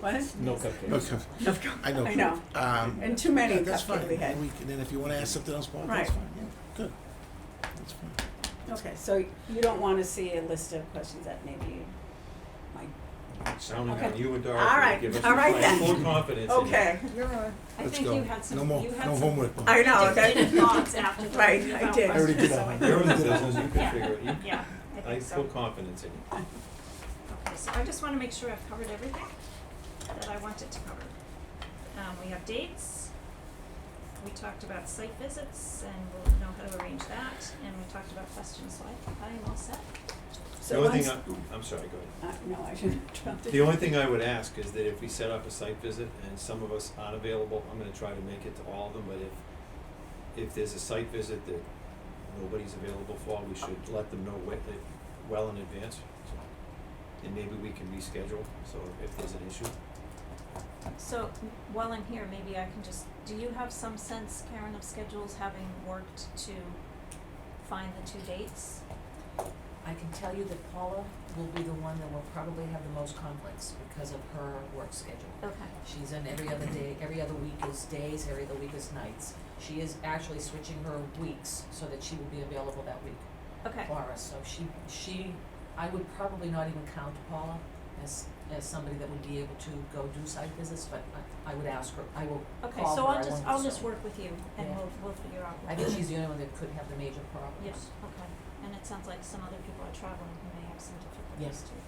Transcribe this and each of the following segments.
What? No cupcakes. Okay, I I know. I know. Um, And too many yeah, that's cupcake fine. we had. And we can- then if you wanna ask something else, Bob, Right. that's fine, yeah, good. That's fine. Okay, so you don't want to see a list of questions that maybe you might. Sounding Okay. on you and All Dorothy, right. give us All right then. like full confidence in you. Okay, I Let's think go. you had some, No more, you had no some homework, Bob. I know, dictated that, thoughts after the Right, review I about did. I already did questions, that so one. You're in the think- business, you Yeah. can figure it, you, Yeah, I I have think full so. confidence in you. Okay, so I just wanna make sure I've covered everything that I wanted to cover. Um, we have dates, we talked about site visits and we'll know how to arrange that, and we talked about questions, so I, I am all set. so The only once, thing I, am sorry, go ahead. uh, no, I shouldn't interrupt The only thing I would ask is that if we set up a site visit and some of us aren't available, I'm gonna try to make it to all of them, but if, if there's a site visit that nobody's available for, we should let them know we- that- well in advance, so. And maybe we can reschedule, so if there's an issue. So while I'm here, maybe I can just, do you have some sense, Karen, of schedules, having worked to find the two dates? I can tell you that Paula will be the one that will probably have the most conflicts because of her work schedule. Okay, She's on every other day, every other week is days, every other week is nights. She is actually switching her weeks so that she will be available that week okay, for us. So she, she, I would probably not even count Paula as, as somebody that would be able to go do site visits, but I, I would ask her, I will call her, okay, so I I'll just, won't I'll just say. work with you and Yeah. we'll, we'll figure out. I think she's the only one that could have the major problems. Yes, okay, and it sounds like some other people are traveling who may have some Yes. difficulties too.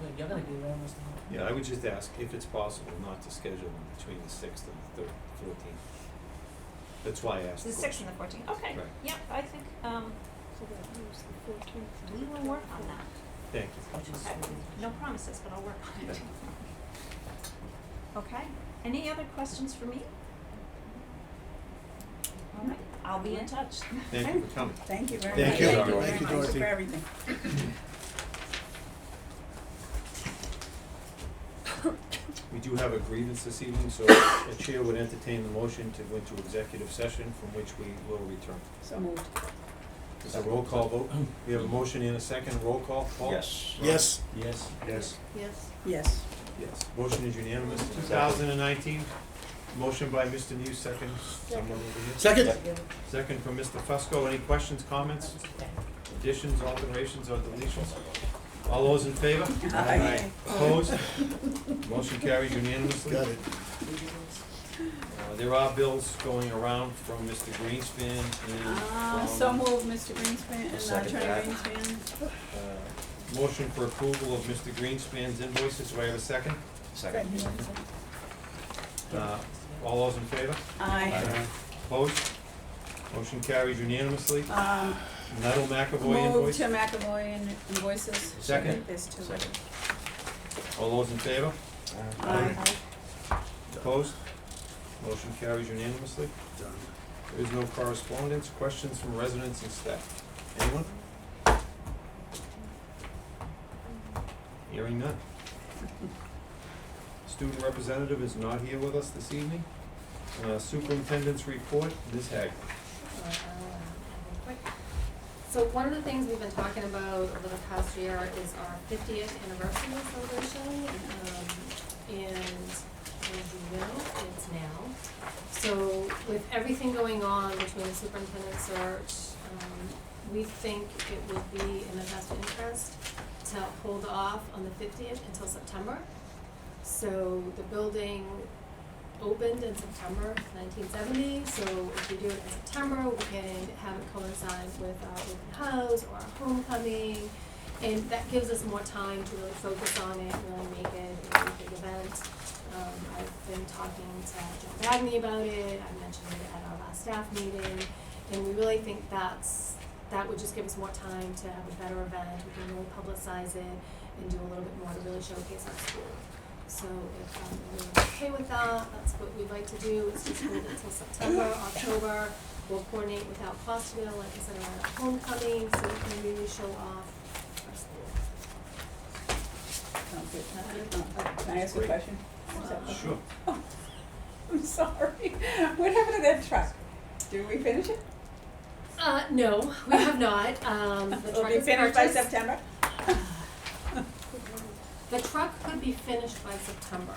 Well, You're gonna be almost the whole. Yeah, I would just ask if it's possible not to schedule them between the sixth and the thir- fourteenth. That's why I asked the The sixth question. and the fourteenth, okay, Right. yep, I think, um, we will work on that. Thank Which is- Okay, no promises, but I'll work on it. Okay, any other questions for me? All right, I'll be in touch. you, thank you for coming. Thank you very much. Thank you, Dorothy. very Thank you, much Dorothy. For everything. We do have a grievance this evening, so the chair would entertain the motion to go into executive session from which we will return. So moved. It's a roll call vote. We have a motion and a second. Roll call. Paul? Yes. Yes, Yes. Yes. Yes. Yes. Yes. Motion is unanimous. Two thousand and nineteen, motion by Mr. News, second. Someone over here. second? Second from Mr. Fusco. Any questions, comments, additions, alterations, or deletions? All those in favor? Aye. Opposed? Motion carried unanimously. Got it. Uh, There are bills going around from Mr. Greenspan and Uh, from, so moved, Mr. Greenspan, I'll and second Attorney that. Greenspan. uh, motion for approval of Mr. Greenspan's invoices. Do I have a second? Second. Uh, All those in favor? Aye. Opposed? Motion carries unanimously. Um, Nettle McAvoy move invoice. to McAvoy and invoices. Second. I think There's two. Second. All those in favor? Aye. Opposed? Motion carries unanimously. Done. There is no correspondence, questions from residents and staff. Anyone? Hearing none. Student representative is not here with us this evening. Uh, Superintendent's report, Ms. Hagler. So one of the things we've been talking about over the past year is our fiftieth anniversary celebration, um, and as you know, it's now. So with everything going on between the superintendent search, um, we think it would be in the best interest to hold off on the fiftieth until September. So the building opened in September nineteen seventy, so if we do it in September, we can have it coincide with our open house or our homecoming. And that gives us more time to really focus on it, really make it a big event. Um, I've been talking to John Bagney about it, I mentioned it at our last staff meeting, and we really think that's, that would just give us more time to have a better event, we can really publicize it and do a little bit more to really showcase our school. So if um, everyone's okay with that, that's what we'd like to do, is just hold it until September, October. We'll coordinate with Al Fosterville, like I said, around homecoming, so we can really show off our school. Sounds Oh, good. oh, Can I ask a Great. question? Is that- Oh, Sure. I'm sorry. What happened to that truck? Did we finish it? Uh, no, we have not, um, the It'll truck be is finished by purchased. September? The truck could be finished by September.